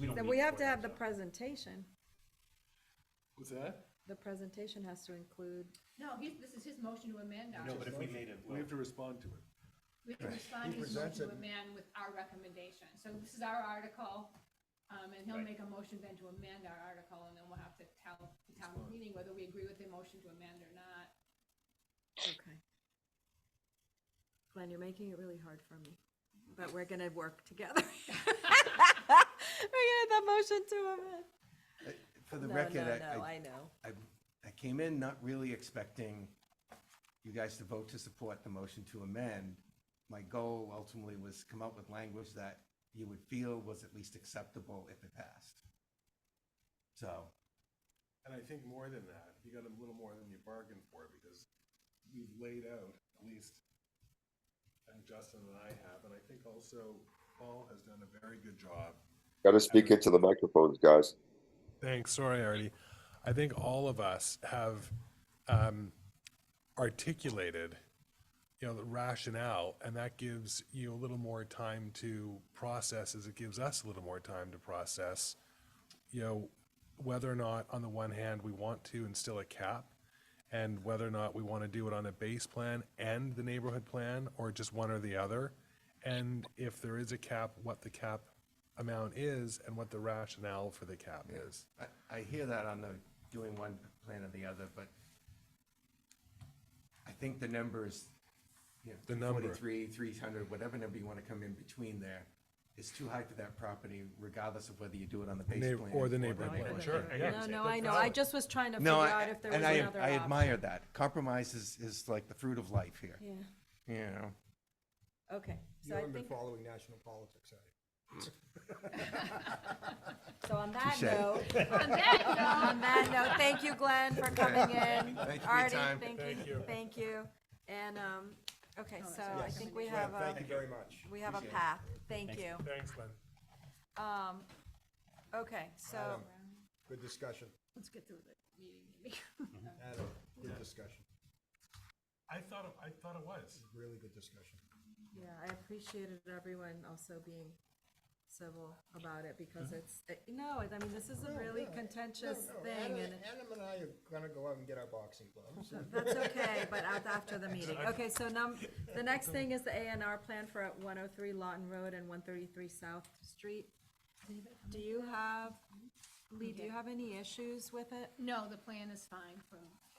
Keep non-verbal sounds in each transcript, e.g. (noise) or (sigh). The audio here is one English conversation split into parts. we don't. Then need we the have to have the courthouse. presentation. What's that? The presentation has to include, No, he's, this is his motion to amend No, ours. but if we made it, We well, have to respond to it. We can respond to his presents motion to it. amend with our recommendation. So this is our article, um, and he'll Right. make a motion then to amend our article, and then we'll have to tell the town meeting whether we agree with the motion to amend or not. okay. Glenn, you're making it really hard for me, but we're gonna work (laughs) together. We're gonna have the motion to amend. For the No, record, no, I- no, I, I know. I, I came in not really expecting you guys to vote to support the motion to amend. My goal ultimately was come up with language that you would feel was at least acceptable if it passed. So, And I think more than that, you got a little more than you bargained for, because we've laid out, at least, and Justin and I have, and I think also Paul has done a very good job. Got to speak into the microphones, guys. Thanks. Sorry, Artie. I think all of us have um, articulated, you know, the rationale, and that gives you a little more time to process, as it gives us a little more time to process, you know, whether or not, on the one hand, we want to instill a cap, and whether or not we want to do it on a base plan and the neighborhood plan, or just one or the other. And if there is a cap, what the cap amount is and what the rationale for the cap is. I, I hear that on the doing one plan or the other, but I think the numbers, you know, The number. Forty-three, three hundred, whatever number you want to come in between there, is too high for that property regardless of whether you do it on the base Neigh- plan. or the neighborhood the- plan. Sure, I No, understand. no, I know, I just was trying to figure No, I- out if there was and I, another I option. admire that. Compromise is, is like the fruit of life here, Yeah, you know? okay, You so I haven't been think, following national politics, have you? so on that Touche. note, On that note, on that note, thank you, Glenn, for coming in. Thank you for your Artie, time. thank you, thank you. And, um, okay, so I Yes. think we Glenn, have a, Thank you very much. we have a path, thank you. Thanks, Glenn. Um, okay, so, Adam, Um, Oh. Good discussion. let's get through the meeting. Adam, good discussion. I thought, it- I thought it was. Really good discussion. yeah, I appreciated everyone also being civil about it because it's, it- no, I mean, this is a really contentious Mm-hmm. No, no, thing Adam- and Adam and I are gonna go out and get our boxing gloves. (laughs) that's okay, but af- after the meeting. Okay, so num, the next thing is the A and R plan for one oh three Lawton Road and one thirty-three South Street. Do you have, Lee, do you have any issues with it? No, the plan is fine from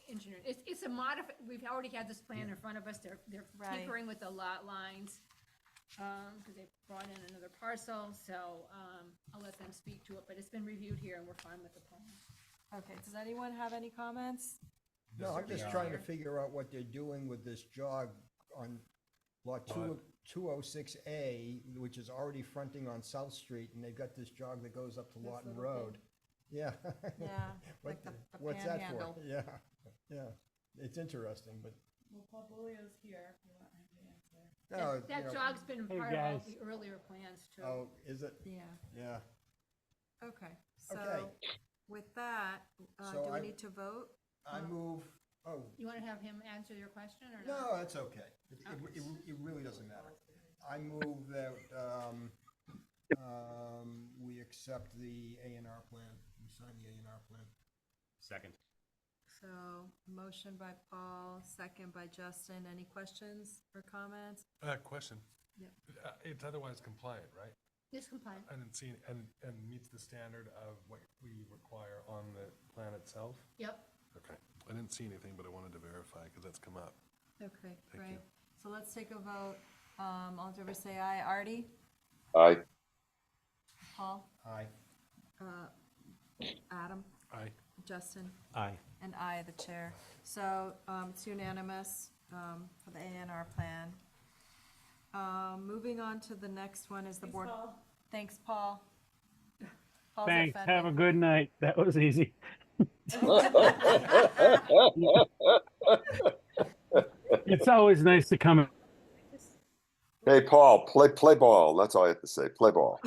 engineer. It's, it's a modif, we've already had this plan in front of us. They're, they're Right. tinkering with the lot lines. Um, because they brought in another parcel, so, um, I'll let them speak to it, but it's been reviewed here and we're fine with the plan. Okay, does anyone have any (laughs) comments? No, I'm just trying to figure out what they're doing with this jog on lot two, two oh six A, which is already fronting on South Street, and they've got this jog that goes up to Lawton Road. Yeah. (laughs) Yeah, What like the the- the What's that for? panhandle. Yeah, yeah. It's interesting, but, Well, Paulbolia's here if you want him to answer. no, That- you That know, jog's been part of all the earlier plans too. oh, is it? Yeah, Yeah. okay, so Okay. with that, uh, So do we I- need to vote? I move, oh, You want to have him answer your question or not? No, that's okay. It, it, it, it really doesn't matter. I move that, um, um, we accept the A and R plan, we sign the A and R plan. second. So, motion by Paul, second by Justin. Any questions or comments? Uh, question. Yep. Uh, It's otherwise compliant, right? This compliant. And it's seen, and, and meets the standard of what we require on the plan itself? Yep. Okay. I didn't see anything, but I wanted to verify because that's come up. Okay, you. great. So let's take a vote. Um, all in favor say aye. Artie? Aye. Paul? Aye. Adam? Aye. Justin? Aye. And I, the chair. So, um, it's unanimous, um, for the A and R plan. Um, moving on to the next one is the board. Thanks, Paul. Paul's Thanks. Have a offended. good night. (laughs) That was easy. it's always nice to come. Hey, Paul, play play ball. That's all I have to say. Play ball.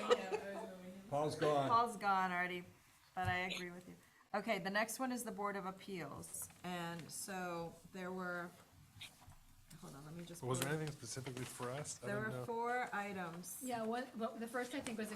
(laughs) Paul's gone. Paul's gone already, but I agree with you. Okay, the next one is the Board of Appeals, and so there were, hold on, let me just. Was there pull it. anything specifically for us? I There didn't were know. four items. Yeah, what, what, the first I think was a